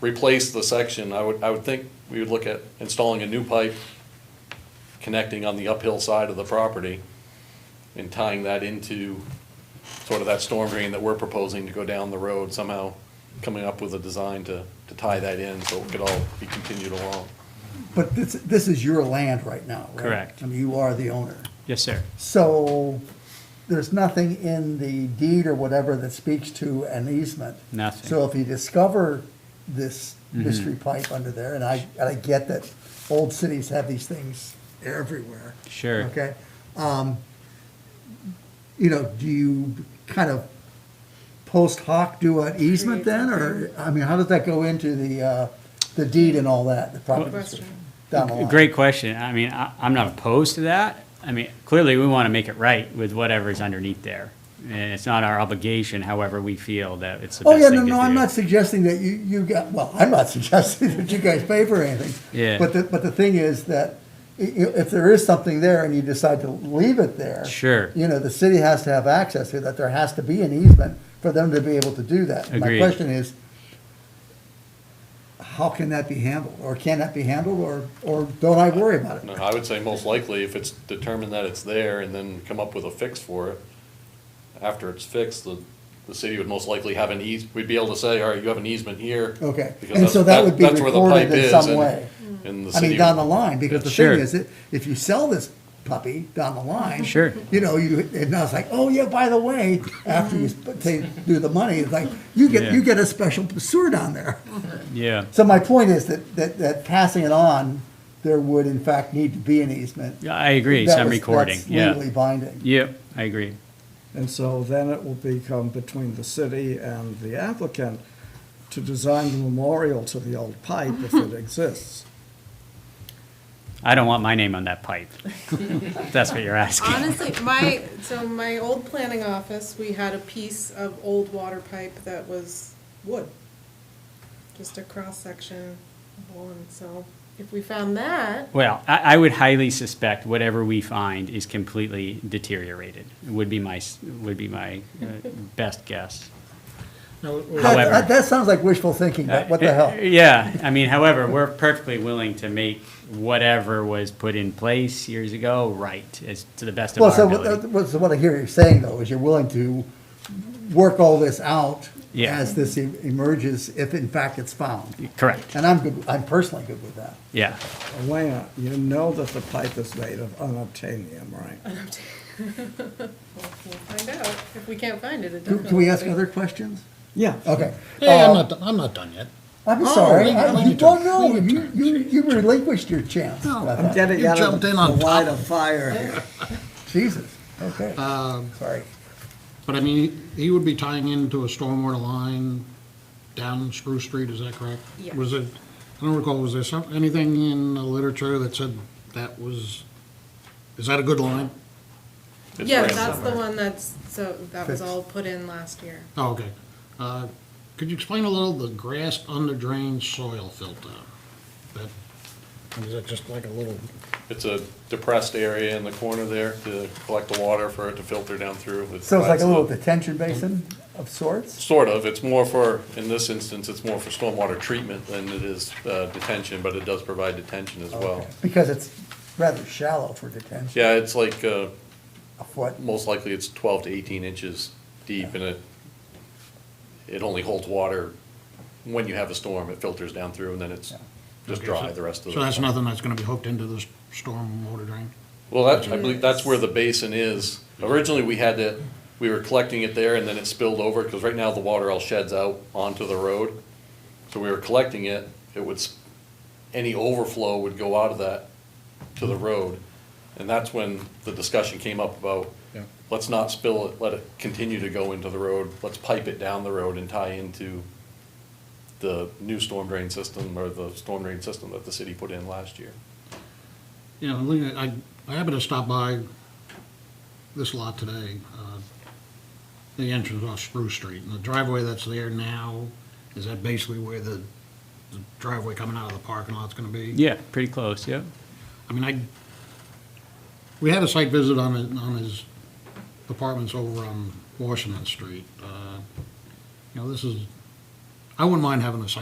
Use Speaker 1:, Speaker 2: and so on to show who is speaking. Speaker 1: replace the section, I would, I would think we would look at installing a new pipe connecting on the uphill side of the property and tying that into sort of that storm drain that we're proposing to go down the road, somehow coming up with a design to, to tie that in so it could all be continued along.
Speaker 2: But this, this is your land right now, right?
Speaker 3: Correct.
Speaker 2: I mean, you are the owner.
Speaker 3: Yes, sir.
Speaker 2: So there's nothing in the deed or whatever that speaks to an easement.
Speaker 3: Nothing. Mm-hmm.
Speaker 2: So if you discover this mystery pipe under there, and I, and I get that old cities have these things everywhere.
Speaker 3: Sure.
Speaker 2: Okay? Um, You know, do you kind of post hoc do an easement then, or, I mean, how does that go into the, uh, the deed and all that, the property description? Down the line?
Speaker 3: Great question. I mean, I, I'm not opposed to that. I mean, clearly, we want to make it right with whatever's underneath there. And it's not our obligation, however we feel that it's the
Speaker 2: Oh,
Speaker 3: best
Speaker 2: yeah,
Speaker 3: thing
Speaker 2: no,
Speaker 3: to
Speaker 2: no, I'm
Speaker 3: do.
Speaker 2: not suggesting that you, you got, well, I'm not suggesting that you guys pay for anything.
Speaker 3: Yeah.
Speaker 2: But the, but the thing is that i- i- if there is something there and you decide to leave it there.
Speaker 3: Sure.
Speaker 2: You know, the city has to have access to that, there has to be an easement for them to be able to do that. My
Speaker 3: Agreed.
Speaker 2: question is, how can that be handled, or can that be handled, or, or don't I worry about
Speaker 1: No,
Speaker 2: it?
Speaker 1: I would say most likely if it's determined that it's there and then come up with a fix for it, after it's fixed, the, the city would most likely have an eas, we'd be able to say, all right, you have an easement here.
Speaker 2: Okay,
Speaker 1: because
Speaker 2: and so
Speaker 1: that's-
Speaker 2: that would be
Speaker 1: that's where the pipe
Speaker 2: recorded in
Speaker 1: is,
Speaker 2: some
Speaker 1: and-
Speaker 2: way.
Speaker 1: And the
Speaker 2: I mean,
Speaker 1: city,
Speaker 2: down the line, because the
Speaker 3: Sure.
Speaker 2: thing is, that if you sell this puppy down the line.
Speaker 3: Sure.
Speaker 2: You know, you, and now it's like, oh yeah, by the way, after you sp- they do the money, it's like, you get,
Speaker 3: Yeah.
Speaker 2: you get a special sewer down there.
Speaker 3: Yeah.
Speaker 2: So my point is that, that, that passing it on, there would in fact need to be an easement.
Speaker 3: Yeah, I agree.
Speaker 2: That
Speaker 3: Some
Speaker 2: was-
Speaker 3: recording.
Speaker 2: that's Legally
Speaker 3: Yeah.
Speaker 2: binding.
Speaker 3: Yep, I agree.
Speaker 4: And so then it will become between the city and the applicant to design the memorial to the old pipe if it exists.
Speaker 3: I don't want my name on that pipe. That's what you're asking.
Speaker 5: Honestly, my, so my old planning office, we had a piece of old water pipe that was wood. Just a cross-section of one, so if we found that,
Speaker 3: Well, I, I would highly suspect whatever we find is completely deteriorated, would be my, s- would be my uh, best
Speaker 2: That-
Speaker 3: guess. However- Uh,
Speaker 2: That, that sounds like wishful thinking, but what the hell?
Speaker 3: Yeah, I mean, however, we're perfectly willing to make whatever was put in place years ago right, as to the best of
Speaker 2: Well,
Speaker 3: our
Speaker 2: so uh,
Speaker 3: ability.
Speaker 2: what, what- so what I hear you saying though, is you're willing to work all this out
Speaker 3: Yeah.
Speaker 2: as this e- emerges, if in fact it's found.
Speaker 3: Correct,
Speaker 2: And I'm good, I'm personally good with that.
Speaker 3: yeah.
Speaker 4: Elena, you know that the pipe is made of unobtainium, right?
Speaker 5: we'll find out. If we can't find it, it
Speaker 2: Can
Speaker 5: definitely.
Speaker 2: can we ask other questions?
Speaker 4: Yeah.
Speaker 2: Okay.
Speaker 6: Hey, I'm
Speaker 2: Uh,
Speaker 6: not, do- I'm not done yet.
Speaker 2: I'm
Speaker 6: Oh,
Speaker 2: sorry,
Speaker 6: leave it,
Speaker 2: I-
Speaker 6: leave
Speaker 2: you
Speaker 6: it to-
Speaker 2: don't know,
Speaker 6: leave it
Speaker 2: you, you, you relinquished your chance.
Speaker 6: No,
Speaker 2: I
Speaker 4: I'm
Speaker 2: thought.
Speaker 4: getting
Speaker 6: You
Speaker 4: out of
Speaker 6: jumped in
Speaker 4: the
Speaker 6: on
Speaker 4: light
Speaker 6: top.
Speaker 4: of fire here. Um,
Speaker 2: Jesus, okay, sorry.
Speaker 6: But I mean, he would be tying into a stormwater line down Spruce Street, is that correct?
Speaker 5: Yeah.
Speaker 6: Was it, I don't recall, was there some, anything in the literature that said that was, is that a good line?
Speaker 1: it's
Speaker 5: Yeah,
Speaker 1: ran
Speaker 5: that's the
Speaker 1: somewhere.
Speaker 5: one that's, so that was
Speaker 2: Fixed.
Speaker 5: all put in last year.
Speaker 6: Oh, okay. Uh, Could you explain a little the grass under drain soil filter? That, is that just like a little,
Speaker 1: It's a depressed area in the corner there to collect the water for it to filter down through. It
Speaker 2: So it's like
Speaker 1: provides
Speaker 2: a little
Speaker 1: the-
Speaker 2: detention basin of sorts?
Speaker 1: Sort of, it's more for, in this instance, it's more for stormwater treatment than it is uh, detention, but it does provide detention as well.
Speaker 2: Because it's rather shallow for detention,
Speaker 1: Yeah, it's like, uh,
Speaker 2: a foot.
Speaker 1: most likely it's twelve to eighteen inches deep and it, it only holds water when you have a storm, it filters down through and then it's just
Speaker 6: Okay,
Speaker 1: dry
Speaker 6: so-
Speaker 1: the rest of the.
Speaker 6: so that's nothing that's gonna be hooked into this storm water drain?
Speaker 1: Well, that, I believe that's where the basin is. Originally, we had it, we were collecting it there and then it spilled over, because right now the water all sheds out onto the road. So we were collecting it, it would, s- any overflow would go out of that to the road. And that's when the discussion came up about,
Speaker 6: Yeah.
Speaker 1: let's not spill it, let it continue to go into the road, let's pipe it down the road and tie into the new storm drain system or the storm drain system that the city put in last year.
Speaker 6: Yeah, Lena, I, I happened to stop by this lot today, uh, the entrance off Spruce Street, and the driveway that's there now, is that basically where the the driveway coming out of the parking lot's gonna be?
Speaker 3: Yeah, pretty close, yeah.
Speaker 6: I mean, I, we had a site visit on, it- on his apartments over on Washington Street. Uh, You know, this is, I wouldn't mind having a site